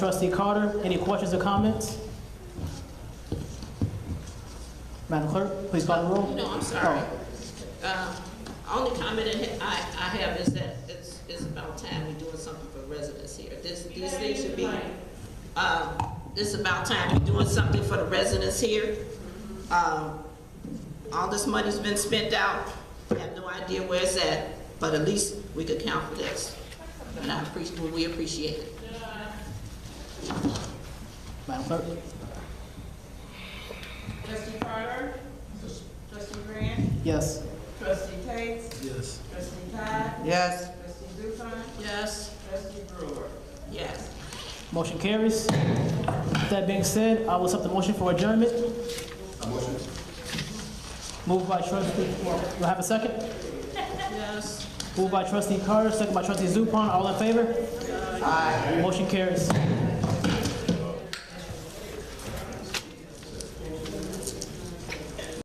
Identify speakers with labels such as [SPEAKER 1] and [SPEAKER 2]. [SPEAKER 1] Trustee Carter, any questions or comments? Madam Clerk, please call the roll.
[SPEAKER 2] No, I'm sorry.
[SPEAKER 1] Oh.
[SPEAKER 2] Uh, Only comment I, I I have is that it's, it's about time we're doing something for residents here. This, these things should be, um, it's about time we're doing something for the residents here. Um, All this money's been spent out, I have no idea where it's at, but at least we could count for this. And I appreciate, we appreciate it.
[SPEAKER 1] Madam Clerk?
[SPEAKER 3] Trustee Carter? Trustee Grant?
[SPEAKER 1] Yes.
[SPEAKER 3] Trustee Tate? Yes. Trustee Todd?
[SPEAKER 2] Yes.
[SPEAKER 3] Trustee Zupan?
[SPEAKER 2] Yes.
[SPEAKER 3] Trustee Brewer?
[SPEAKER 2] Yes.
[SPEAKER 1] Motion carries. With That being said, I will accept the motion for adjournment. motion. Moved by trustee, do I have a second?
[SPEAKER 2] Yes.
[SPEAKER 1] Moved by trustee Carter, second by trustee Zupan, all in favor? Aye. Motion carries.